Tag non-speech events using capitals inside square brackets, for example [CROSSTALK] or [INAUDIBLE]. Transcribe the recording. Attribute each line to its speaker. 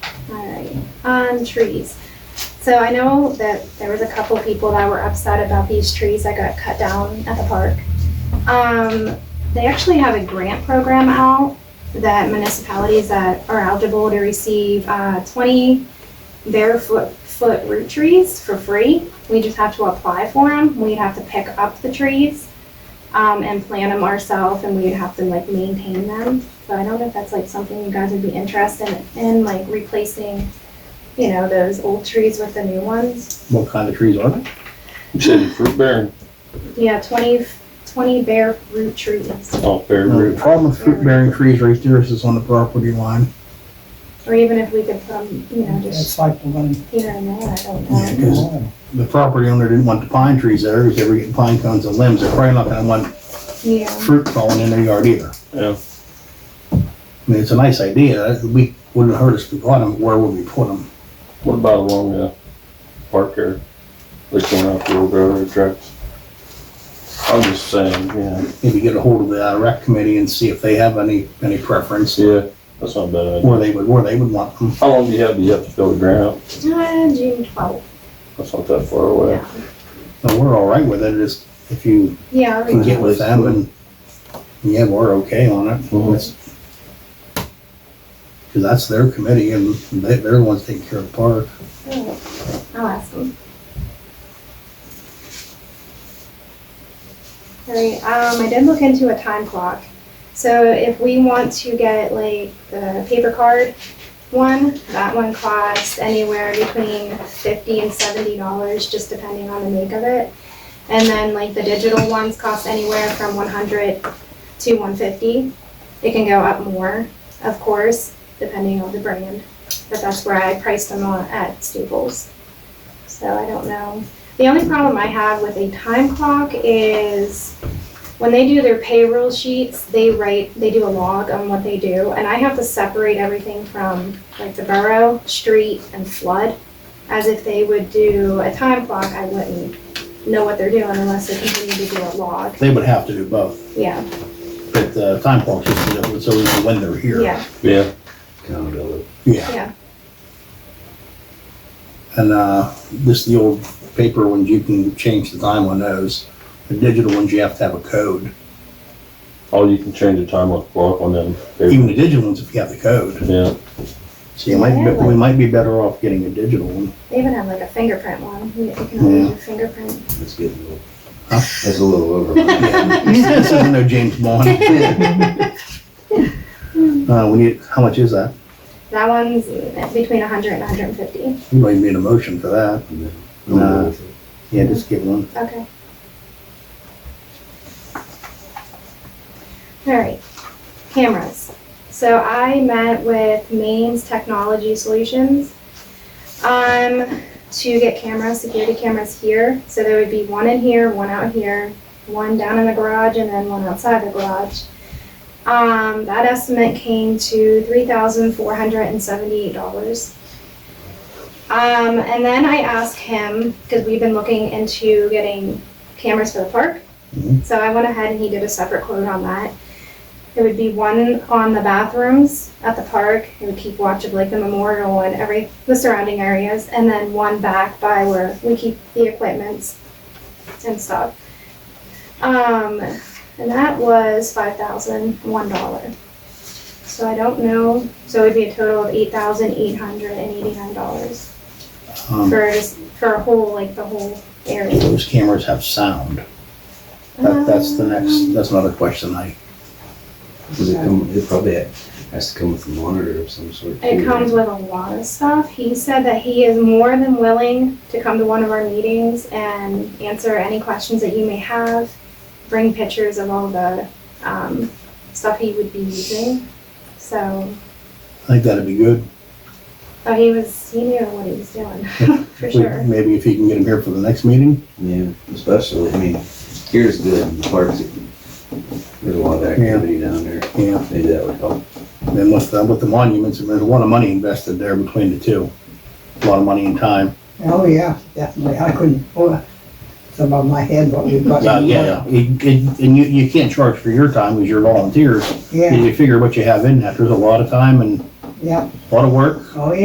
Speaker 1: on trees. So I know that there was a couple people that were upset about these trees that got cut down at the park. Um, they actually have a grant program out that municipalities that are eligible to receive, uh, twenty barefoot, foot root trees for free. We just have to apply for them. We'd have to pick up the trees, um, and plant them ourselves and we'd have to like maintain them. So I don't know if that's like something you guys would be interested in, like replacing, you know, those old trees with the new ones.
Speaker 2: What kind of trees are they?
Speaker 3: You said fruit bearing,
Speaker 1: Yeah, twenty, twenty bare root trees
Speaker 3: oh, bear
Speaker 2: The
Speaker 3: root.
Speaker 2: problem with fruit bearing trees right there is it's on the property line.
Speaker 1: or even if we could put them, you know, just
Speaker 4: It's like the one.
Speaker 1: here and there, I don't
Speaker 2: Yeah,
Speaker 1: know.
Speaker 2: 'cause The property owner didn't want the pine trees there because they were getting pine cones and limbs. They're probably not gonna want
Speaker 1: Yeah,
Speaker 2: fruit falling in their yard either.
Speaker 3: Yeah,
Speaker 2: I mean, it's a nice idea. We wouldn't hurt us if we bought them. Where would we put them?
Speaker 3: what about along the park area? Like going out the old railroad tracks? I'm just saying, yeah,
Speaker 2: Maybe get a hold of the uh, rec committee and see if they have any, any preference
Speaker 3: yeah, that's not a bad idea.
Speaker 2: where they would, where they would want them.
Speaker 3: How long do you have, do you have to fill the ground?
Speaker 1: Uh, June twelfth,
Speaker 3: That's not that far away.
Speaker 1: yeah.
Speaker 2: But we're all right with it. It's, if you
Speaker 1: Yeah, I'll
Speaker 2: can
Speaker 1: reach
Speaker 2: get
Speaker 1: out.
Speaker 2: with them and, yeah, we're okay on it. It's- Cause that's their committee and they, they're the ones taking care of the park.
Speaker 1: Alright, I'll ask them. Alright, um, I did look into a time clock. So if we want to get like the paper card one, that one costs anywhere between fifty and seventy dollars, just depending on the make of it. And then like the digital ones cost anywhere from one hundred to one fifty. It can go up more, of course, depending on the brand but that's where I priced them on at Staples. So I don't know. The only problem I have with a time clock is when they do their payroll sheets, they write, they do a log on what they do, and I have to separate everything from like the borough, street, and flood, as if they would do a time clock, I wouldn't know what they're doing unless they continue to do a log.
Speaker 2: They would have to do both,
Speaker 1: Yeah,
Speaker 2: but the time clock just, so we know when they're here.
Speaker 1: yeah,
Speaker 3: Yeah,
Speaker 2: Yeah.
Speaker 1: yeah.
Speaker 2: And, uh, this, the old paper ones, you can change the time on those. The digital ones, you have to have a code.
Speaker 3: oh, you can change the time on the clock on them.
Speaker 2: Even the digital ones, if you have the code.
Speaker 3: Yeah,
Speaker 2: So you might, be- we might be better off getting a digital one.
Speaker 1: They even have like a fingerprint one, you you can only do fingerprint.
Speaker 5: That's getting a little,
Speaker 2: Huh?
Speaker 5: that's a little
Speaker 1: [LAUGHS]
Speaker 5: over.
Speaker 2: Yeah. This isn't no James Bond. Uh, we need, how much is that?
Speaker 1: That one's between 100 and 150.
Speaker 2: You might need a motion for that. Nah. Yeah, just get one.
Speaker 1: Okay. All right, cameras. So I met with Maine's Technology Solutions um, to get cameras, security cameras here. So there would be one in here, one out here, one down in the garage, and then one outside the garage. Um, that estimate came to $3,478. Um, and then I asked him, because we've been looking into getting cameras for the park.
Speaker 2: Mhm.
Speaker 1: So I went ahead and he did a separate quote on that. It would be one on the bathrooms at the park. It would keep watch of like the memorial and every, the surrounding areas. And then one back by where we keep the equipments and stuff. Um, and that was five thousand one dollar. So I don't know, so it'd be a total of eight thousand eight hundred and eighty-nine dollars
Speaker 2: Um,
Speaker 1: for for a whole like the whole area.
Speaker 2: those cameras have sound. That, that's the
Speaker 1: Um.
Speaker 2: next, that's another question I,
Speaker 5: Does it come, it probably has to come with a monitor of some sort.
Speaker 1: It
Speaker 5: too,
Speaker 1: comes
Speaker 5: right?
Speaker 1: with a lot of stuff. He said that he is more than willing to come to one of our meetings and answer any questions that you may have. Bring pictures of all the um, stuff he would be using. So,
Speaker 2: I think that'd be good.
Speaker 1: but he was he knew what he was doing [LAUGHS] for
Speaker 2: We-
Speaker 1: sure.
Speaker 2: Maybe if you can get them here for the next meeting.
Speaker 5: Yeah, especially, I mean, here's good, the parks, there's a lot of activity down there.
Speaker 2: Yeah.
Speaker 5: Maybe that would help.
Speaker 2: And with, the- with the monuments, there's a lot of money invested there between the two. A lot of money and time.
Speaker 4: Oh, yeah, definitely. I couldn't, oh, it's above my head what we've got.
Speaker 2: Uh, yeah, it- it- and you, you can't charge for your time because you're volunteers.
Speaker 4: Yeah,
Speaker 2: You figure what you have in that. There's a lot of time and
Speaker 4: yeah.
Speaker 2: a lot of work.
Speaker 4: Oh, yeah.